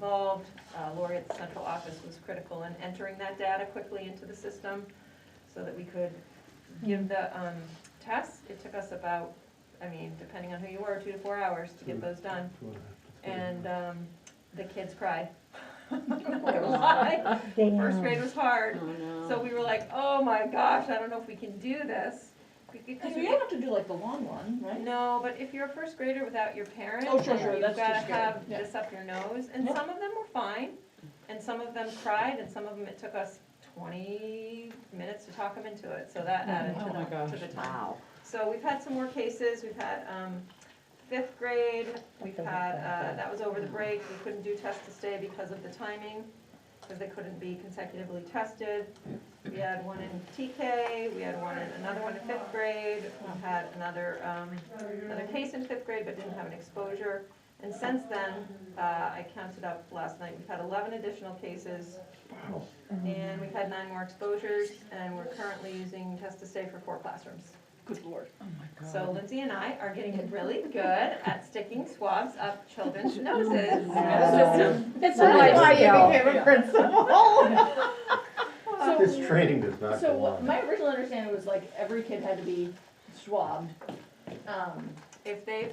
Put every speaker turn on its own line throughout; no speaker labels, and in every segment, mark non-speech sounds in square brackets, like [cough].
involved. Uh, Laureate's central office was critical in entering that data quickly into the system so that we could give the um, tests. It took us about, I mean, depending on who you were, two to four hours to get those done. And um, the kids cried. [laughs] I'm not gonna lie. First grade was hard. So we were like, oh my gosh, I don't know if we can do this. Because
Because we don't have to do like the long one, right?
No, but if you're a first grader without your parent,
Oh, sure, sure,
you've
that's
gotta
just good,
have
yeah.
this up your nose, and
Yep.
some of them were fine, and some of them cried, and some of them, it took us twenty minutes to talk them into it, so that added
Oh, my
to the, to the time.
Wow.
So we've had some more cases, we've had, um, fifth grade, we've had, uh, that was over the break, we couldn't do test to stay because of the timing, because they couldn't be consecutively tested. We had one in TK, we had one in, another one in fifth grade, we had another, um, another case in fifth grade, but didn't have an exposure. And since then, uh, I counted up last night, we've had eleven additional cases, and we've had nine more exposures, and we're currently using test to stay for four classrooms.
Good lord.
So Lindsay and I are getting really good at sticking swabs up children's noses. System.
It's
a life skill.
a principal.
So,
This training does not
so
go
what-
on.
my original understanding was like every kid had to be swabbed. Um,
If they,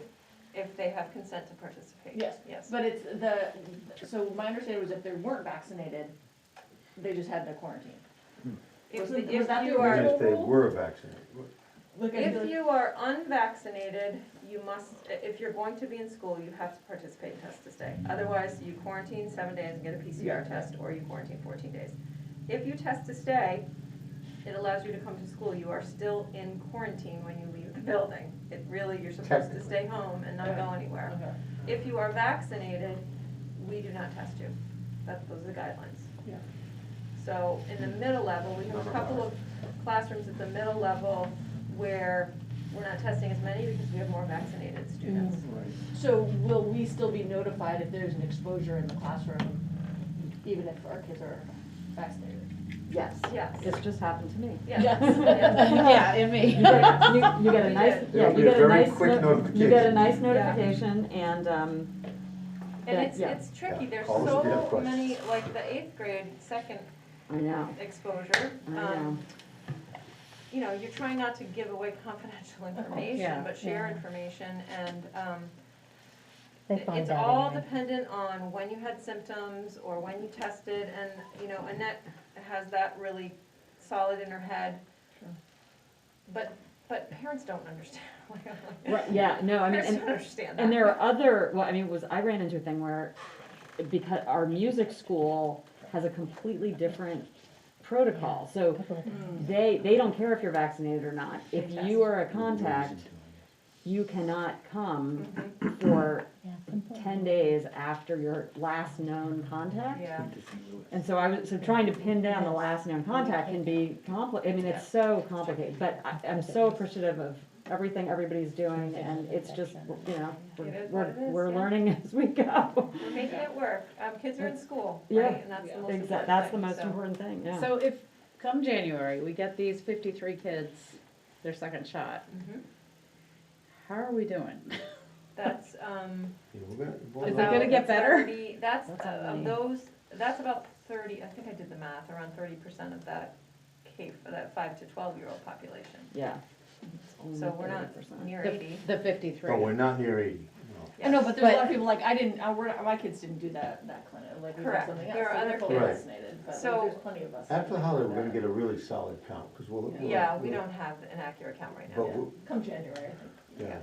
if they have consent to participate.
Yes.
Yes.
But it's the, so my understanding was if they weren't vaccinated, they just had to quarantine.
If
Was
the-
it- was
if
that the
you
Even
are,
original-
if they were vaccinated.
Look at
if
the,
you are unvaccinated, you must, i- if you're going to be in school, you have to participate in test to stay. Otherwise, you quarantine seven days and get a PCR test, or you quarantine fourteen days. If you test to stay, it allows you to come to school. You are still in quarantine when you leave the building. It really, you're supposed to
Technically.
stay home and not go anywhere.
okay.
If you are vaccinated, we do not test you. That, those are the guidelines.
Yeah.
So in the middle level, we have a couple of classrooms at the middle level where we're not testing as many because we have more vaccinated students.
So will we still be notified if there's an exposure in the classroom, even if our kids are vaccinated?
Yes.
Yes,
This just happened to me.
[laughs]
yes, [laughs] yes.
Yeah, and me.
You get a- you- you get a
We
nice,
did.
yeah,
It'll be
you
a
get a
very
nice,
quick
no- you get a
notification.
nice
Yeah.
notification and, um,
And it's,
Yeah.
it's tricky.
Yeah.
There's
Call us if you have
so
questions.
many, like the eighth grade, second
I know,
exposure.
I know.
um, You know, you're trying not to give away confidential information,
Yeah,
but share
yeah.
information and, um,
They
It-
find
It's
out
all
anyway.
dependent on when you had symptoms or when you tested, and, you know, Annette has that really solid in her head.
Sure.
But, but parents don't understand. [laughs]
Right, yeah, no, I mean,
Parents
and,
don't understand that.
And there are other, well, I mean, was, I ran into a thing where, because our music school has a completely different protocol, so they, they don't care if you're vaccinated or not. If you are a contact, you cannot come
Mhm,
for
Yeah.
ten days after your last known contact.
Yeah,
And so I was, so trying to pin down the last known contact can be compli, I mean, it's so complicated, but I, I'm so appreciative of everything everybody's doing, and it's just, you know,
It
we're,
is what
we're,
it is,
we're
yeah.
learning [laughs] as we go.
we're making it work. Um, kids are in school,
Yeah.
right? And that's the most important
Exactly, that's the
thing,
most
so.
important thing, yeah.
So if, come January, we get these fifty-three kids, their second shot,
Mhm.
how are we doing?
That's, um.
Is that gonna
about-
get
that's
better?
already- That's,
That's
uh, of
already-
those, that's about thirty, I think I did the math, around thirty percent of that cave, that five to twelve-year-old population.
Yeah.
So we're not
30%.
near
The-
eighty.
The fifty-three.
Oh, we're not near eighty,
I know, but there's a lot
But-
of people like, I didn't, I, we're, my kids didn't do that, that clinic, like we did
Correct.
something else.
There are
so they're
other
fully
kids. Right.
vaccinated, but
So-
there's plenty of us.
no. After the
that-
holiday, we're gonna get a really solid count, because we'll. we'll-
Yeah, we don't have an accurate count right
But
now.
Yeah.
we'll,
Come January, I think.
Yeah.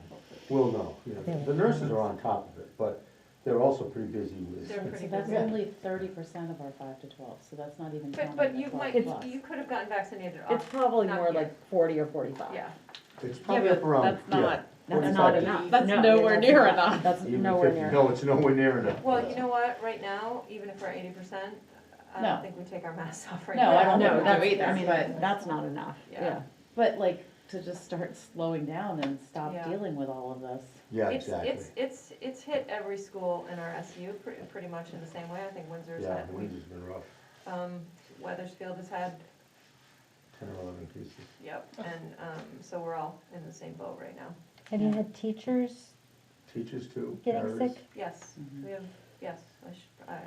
we'll know, you know. The nurses are on top of it, but they're also pretty busy with.
They're pretty
That's
busy.
Yeah.
only thirty percent of our five to twelve, so that's not even counting
But,
the
but you
twelve
might,
plus.
you could have gotten vaccinated
It's
off,
probably
Not
more
yet.
like forty or forty-five.
yeah.
It's probably up
but
around.
that's
yeah,
not-
That's
45.
not enough.
That's
No,
nowhere
that's
near
not-
enough.
That's
Even
nowhere
50
near.
No, it's nowhere near enough.
Well, you know what, right now, even if we're eighty percent, I
No.
don't think we take our masks [laughs] off right now.
No, I don't
No,
think we
that's-
do
I
either,
mean,
but,
That's not enough,
Yeah.
yeah.
but like, to just start slowing down and stop
Yeah.
dealing with all of this.
Yeah,
It's,
exactly.
it's, it's, it's hit every school in our SU pretty, pretty much in the same way. I think Windsor's
Yeah,
had,
the winter's been rough,
um, Weathersfield has had,
ten or eleven cases.
yep. And, um, so we're all in the same boat right now.
Have you had teachers
Teachers too.
getting
nurses.
sick?
Yes, we have, yes, I should, I,